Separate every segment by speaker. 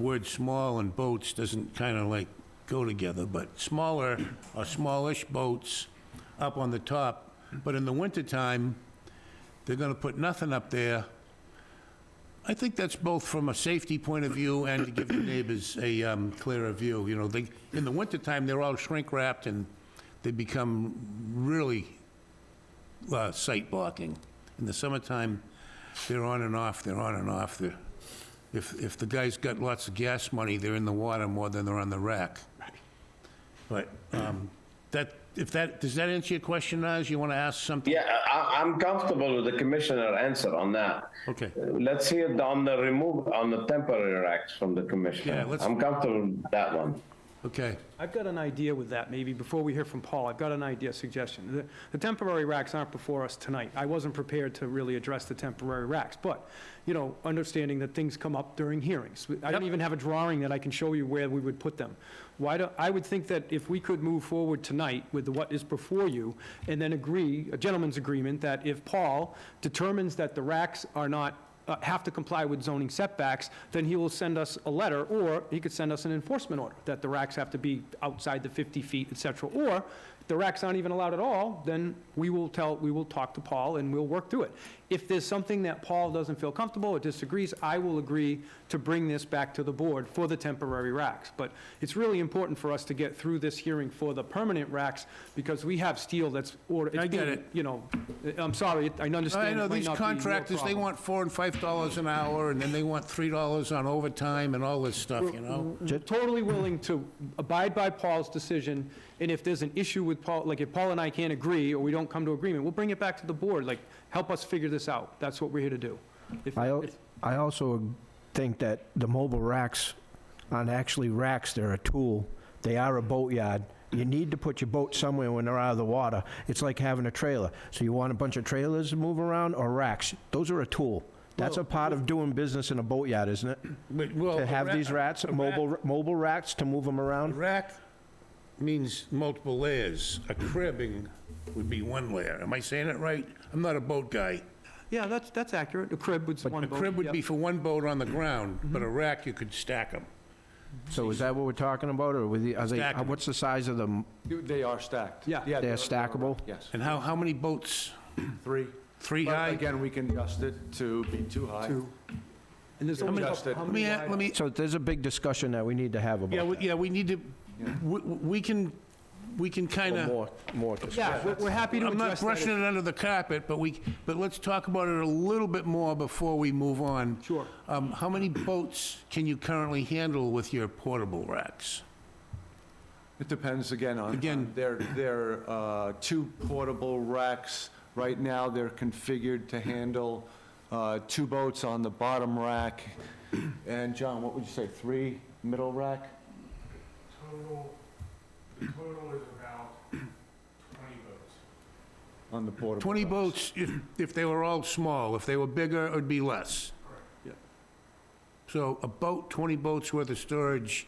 Speaker 1: word small and boats doesn't kind of like go together, but smaller or smallish boats up on the top. But in the wintertime, they're gonna put nothing up there. I think that's both from a safety point of view and to give the neighbors a um, clearer view, you know, they, in the wintertime, they're all shrink-wrapped and they become really uh, sight blocking. In the summertime, they're on and off, they're on and off, they're, if, if the guy's got lots of gas money, they're in the water more than they're on the rack. But, um, that, if that, does that answer your question, Naz? You want to ask something?
Speaker 2: Yeah, I, I'm comfortable with the commissioner answer on that.
Speaker 1: Okay.
Speaker 2: Let's hear the- on the remove, on the temporary racks from the
Speaker 1: Yeah,
Speaker 2: commissioner.
Speaker 1: let's-
Speaker 2: I'm comfortable with that one.
Speaker 1: Okay,
Speaker 3: I've got an idea with that, maybe, before we hear from Paul, I've got an idea, suggestion. The- The temporary racks aren't before us tonight. I wasn't prepared to really address the temporary racks, but, you know, understanding that things come up during hearings. I don't
Speaker 1: Yep.
Speaker 3: even have a drawing that I can show you where we would put them. Why do, I would think that if we could move forward tonight with what is before you, and then agree, a gentleman's agreement, that if Paul determines that the racks are not uh, have to comply with zoning setbacks, then he will send us a letter, or he could send us an enforcement order, that the racks have to be outside the 50 feet, et cetera. Or if the racks aren't even allowed at all, then we will tell, we will talk to Paul and we'll work through it. If there's something that Paul doesn't feel comfortable or disagrees, I will agree to bring this back to the board for the temporary racks. But it's really important for us to get through this hearing for the permanent racks, because we have steel that's ordered.
Speaker 1: I get it.
Speaker 3: You know, I'm sorry, I understand
Speaker 1: I
Speaker 3: it
Speaker 1: know,
Speaker 3: might
Speaker 1: these
Speaker 3: not be your
Speaker 1: contractors, they
Speaker 3: problem.
Speaker 1: want four and five dollars an hour, and then they want three dollars on overtime and all this stuff, you know?
Speaker 3: totally willing to abide by Paul's decision, and if there's an issue with Paul, like if Paul and I can't agree, or we don't come to agreement, we'll bring it back to the board, like, help us figure this out. That's what we're here to do. If-
Speaker 4: I, al-
Speaker 3: if-
Speaker 4: I also think that the mobile racks aren't actually racks, they're a tool. They are a boatyard. You need to put your boat somewhere when they're out of the water. It's like having a trailer. So you want a bunch of trailers to move around or racks? Those are a tool. That's a part of doing business in a boatyard, isn't it?
Speaker 1: But, well,
Speaker 4: To
Speaker 1: a
Speaker 4: have
Speaker 1: ra-
Speaker 4: these rats,
Speaker 1: a
Speaker 4: mobile, ra- mobile racks to move them
Speaker 1: A
Speaker 4: around?
Speaker 1: rack means multiple layers. A cribbing would be one layer. Am I saying it right? I'm not a boat guy.
Speaker 3: Yeah, that's, that's accurate, a crib would one
Speaker 1: A
Speaker 3: vote.
Speaker 1: crib would
Speaker 3: yep.
Speaker 1: be for one boat on the ground, but a rack, you could stack them.
Speaker 4: So is that what we're talking about, or with the, are they,
Speaker 1: Stack 'em.
Speaker 4: what's the size of them?
Speaker 5: You- They are stacked.
Speaker 3: Yeah. They're
Speaker 5: they're-
Speaker 4: stackable?
Speaker 5: Yes,
Speaker 1: And how, how many boats?
Speaker 5: three.
Speaker 1: Three
Speaker 5: But
Speaker 1: high?
Speaker 5: Again, we can adjust it to be too high.
Speaker 3: And there's only,
Speaker 5: Just that-
Speaker 3: how
Speaker 1: Let me,
Speaker 3: many
Speaker 1: a-
Speaker 3: wide?
Speaker 1: let me,
Speaker 4: So there's a big discussion that we need to have about
Speaker 1: yeah, we-
Speaker 4: that.
Speaker 1: yeah, we need to, we- we can, we can kind
Speaker 4: Or
Speaker 1: of.
Speaker 4: More, more discussion.
Speaker 3: Yeah, we're- we're happy to
Speaker 1: I'm not
Speaker 3: address that.
Speaker 1: brushing it under the carpet, but we, but let's talk about it a little bit more before we move on.
Speaker 3: Sure.
Speaker 1: Um, How many boats can you currently handle with your portable racks?
Speaker 5: It depends again on.
Speaker 1: Again-
Speaker 5: They're, they're uh, two portable racks. Right now, they're configured to handle uh, two boats on the bottom rack. And John, what would you say, three middle rack?
Speaker 6: Total, the total is about twenty votes.
Speaker 5: On the portable.
Speaker 1: 20
Speaker 5: racks.
Speaker 1: boats, if, if they were all small, if they were bigger, it'd be less.
Speaker 3: Yep.
Speaker 1: So a boat, 20 boats worth of storage,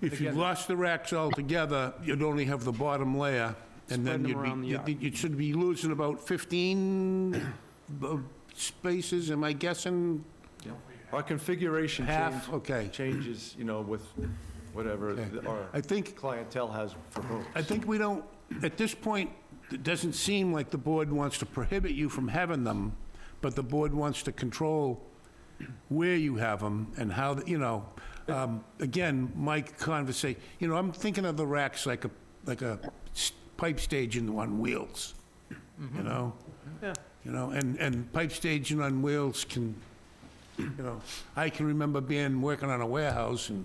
Speaker 1: if you lost the racks altogether, you'd only have the bottom layer, and
Speaker 3: Spread
Speaker 1: then
Speaker 3: them
Speaker 1: you'd
Speaker 3: around the
Speaker 1: be,
Speaker 3: yard.
Speaker 1: you'd- you should be losing about 15 bo- spaces, am I guessing?
Speaker 5: Our configuration change.
Speaker 1: Half, okay.
Speaker 5: Changes, you know, with whatever th-
Speaker 1: I
Speaker 5: our
Speaker 1: think,
Speaker 5: clientele has for rooms.
Speaker 1: I think we don't, at this point, it doesn't seem like the board wants to prohibit you from having them, but the board wants to control where you have them and how, you know, um, again, my conversation, you know, I'm thinking of the racks like a, like a s- pipe staging on wheels, you know?
Speaker 3: Yeah.
Speaker 1: You know, and, and pipe staging on wheels can, you know, I can remember being, working on a warehouse, and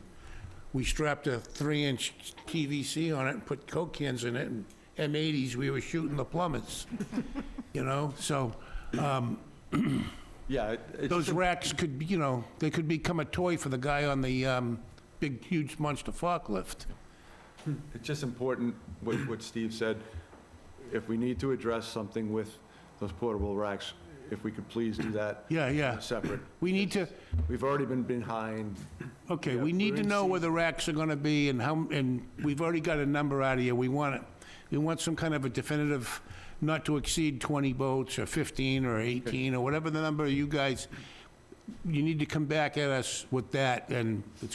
Speaker 1: we strapped a three-inch PVC on it and put Coke cans in it, and M80s, we were shooting the plumbers, you know? So
Speaker 5: Yeah, it- it's.
Speaker 1: those racks could, be, you know, they could become a toy for the guy on the um, big, huge monster forklift.
Speaker 5: It's just important, what, what Steve said, if we need to address something with those portable racks, if we could please do that
Speaker 1: Yeah, yeah.
Speaker 5: separate.
Speaker 1: We need to,
Speaker 5: We've already been behind,
Speaker 1: okay, we need to
Speaker 5: in
Speaker 1: know where the racks are gonna be and how, and we've already got a number out of you. We want it, we want some kind of a definitive, not to exceed 20 boats or 15 or 18 or whatever the number you guys, you need to come back at us with that, and it's